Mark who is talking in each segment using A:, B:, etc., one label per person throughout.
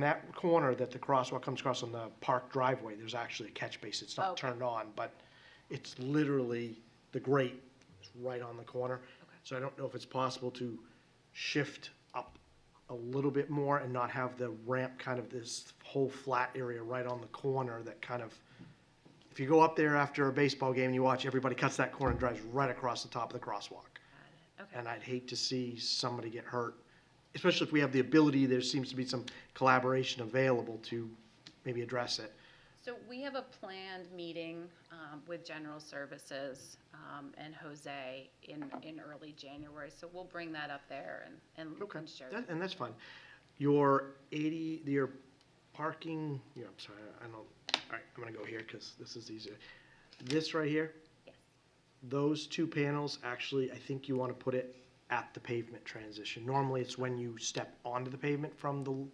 A: In that corner that the crosswalk comes across on the park driveway, there's actually a catch base. It's not
B: Okay.
A: turned on, but it's literally, the grate is right on the corner. So I don't know if it's possible to shift up a little bit more and not have the ramp kind of this whole flat area right on the corner that kind of, if you go up there after a baseball game and you watch, everybody cuts that corner and drives right across the top of the crosswalk.
B: Okay,
A: And I'd hate to see somebody get hurt, especially if we have the ability, there seems to be some collaboration available to maybe address it.
B: so we have a planned meeting um, with General Services um, and Jose in, in early January, so we'll bring that up there and, and-
A: Okay,
B: and share.
A: that- and that's fine. Your eighty, your parking, yeah, I'm sorry, I don't, all right, I'm gonna go here, because this is easier. This right here?
B: Yes.
A: Those two panels, actually, I think you wanna put it at the pavement transition. Normally, it's when you step onto the pavement from the, l-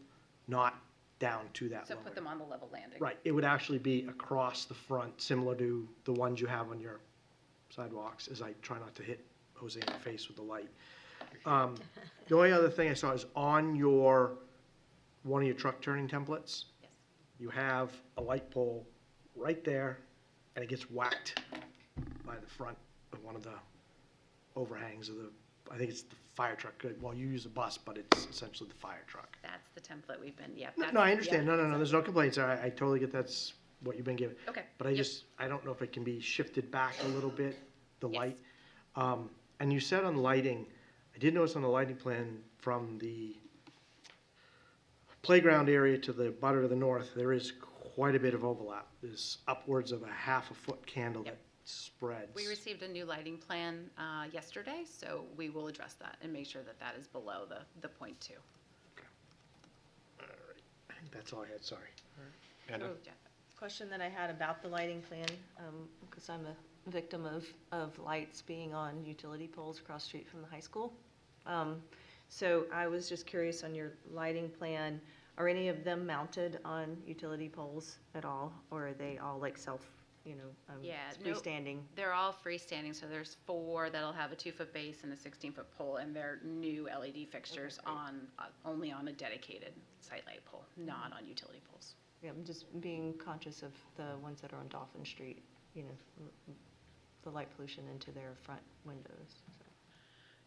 A: not down to that
B: So
A: lower.
B: put them on the level landing.
A: Right, it would actually be across the front, similar to the ones you have on your sidewalks, as I try not to hit Jose in the face with the light. Um, The only other thing I saw is on your, one of your truck turning templates,
B: Yes.
A: you have a light pole right there, and it gets whacked by the front of one of the overhangs of the, I think it's the fire truck, well, you use a bus, but it's essentially the fire truck.
B: That's the template we've been, yep.
A: No,
B: that's-
A: no, I understand.
B: yep,
A: No, no, no, there's no complaints. I, I totally get that's what you've been given.
B: Okay,
A: But I
B: yep.
A: just, I don't know if it can be shifted back a little bit, the
B: Yes.
A: light. Um, and you said on lighting, I did notice on the lighting plan from the playground area to the butter to the north, there is quite a bit of overlap. There's upwards of a half a foot candle
B: Yep.
A: that spreads.
B: We received a new lighting plan uh, yesterday, so we will address that and make sure that that is below the, the point two.
A: I think that's all I had, sorry.
C: Amanda?
B: Jeff,
C: question that I had about the lighting plan, because I'm a victim of, of lights being on utility poles across the street from the high school. Um, So I was just curious on your lighting plan, are any of them mounted on utility poles at all? Or are they all like self, you know, um,
B: Yeah, no-
C: freestanding?
B: They're all freestanding, so there's four that'll have a two-foot base and a 16-foot pole, and they're new LED fixtures on, uh, only on a dedicated site light pole, not on utility poles.
C: Yeah, I'm just being conscious of the ones that are on Dolphin Street, you know, m- m- the light pollution into their front windows. so.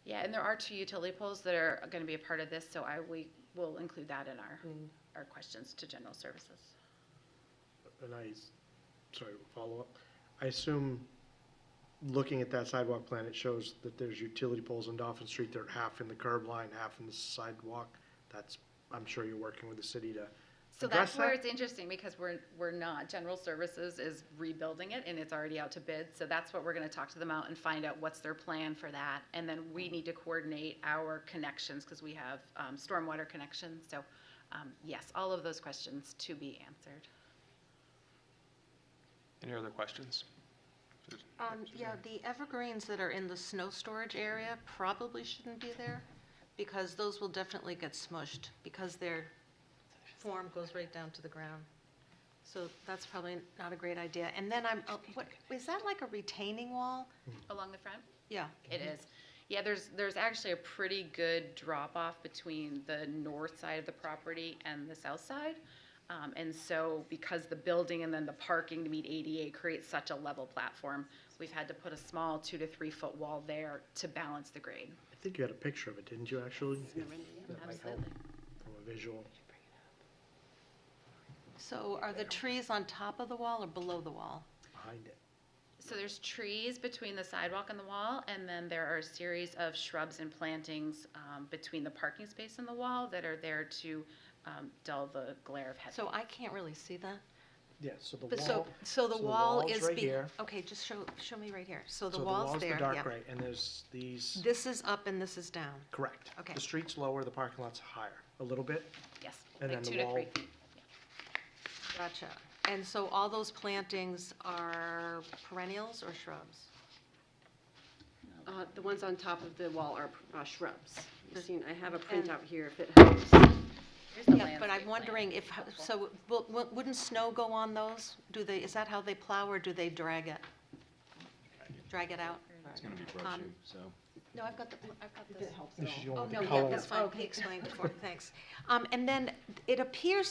B: Yeah, and there are two utility poles that are going to be a part of this, so I, we will include that in our,
C: Mm.
B: our questions to general services.
A: And I, sorry, follow up. I assume, looking at that sidewalk plan, it shows that there's utility poles on Dolphin Street that are half in the curb line, half in the sidewalk. That's, I'm sure you're working with the city to
B: So
A: address
B: that's where
A: that.
B: it's interesting, because we're, we're not, general services is rebuilding it, and it's already out to bid, so that's what we're gonna talk to them out and find out what's their plan for that, and then we need to coordinate our connections, because we have, um, stormwater connections, so, um, yes, all of those questions to be answered.
D: Any other questions?
E: Um, yeah, the evergreens that are in the snow storage area probably shouldn't be there, because those will definitely get smushed, because their form goes right down to the ground. So that's probably not a great idea. And then I'm, uh, what, is that like a retaining wall?
B: Along the front?
E: Yeah,
B: It
A: Mm-hmm.
B: is. Yeah, there's, there's actually a pretty good drop-off between the north side of the property and the south side. Um, and so because the building and then the parking to meet ADA creates such a level platform, we've had to put a small two to three-foot wall there to balance the grade.
A: I think you had a picture of it, didn't you, actually? That might help
B: Absolutely.
A: From a visual.
E: so are the trees on top of the wall or below the wall?
A: behind it.
B: So there's trees between the sidewalk and the wall, and then there are a series of shrubs and plantings, um, between the parking space and the wall that are there to, um, dull the glare of headlights.
E: So I can't really see that.
A: Yeah, so the
E: But so,
A: wall.
E: so the wall
A: wall's
E: is.
A: right
E: be-
A: here.
E: Okay, just show, show me right here. So
A: So
E: the wall's there,
A: the dark
E: yeah.
A: gray, and there's these,
E: This is up and this is down.
A: correct.
E: Okay.
A: The street's lower, the parking lot's higher, a little bit.
B: Yes,
A: And
B: like
A: then the
B: two to three
A: wall.
B: feet.
E: Gotcha. And so all those plantings are perennials or shrubs?
F: Uh, The ones on top of the wall are uh, shrubs. Christine, I have a
E: And-
F: printout here if it helps.
B: Here's the
E: Yeah, but
B: landscape
E: I'm
B: plan.
E: wondering if, so will- will- wouldn't snow go on those? Do they, is that how they plow or do they drag it? Drag it out?
G: It's gonna be
E: Um,
G: brushy, so.
E: No, I've got the, I've got this.
A: This is the
E: Oh,
A: one with
E: no,
A: the
E: yeah,
A: color.
E: that's fine. He explained before, thanks. Um, And then it appears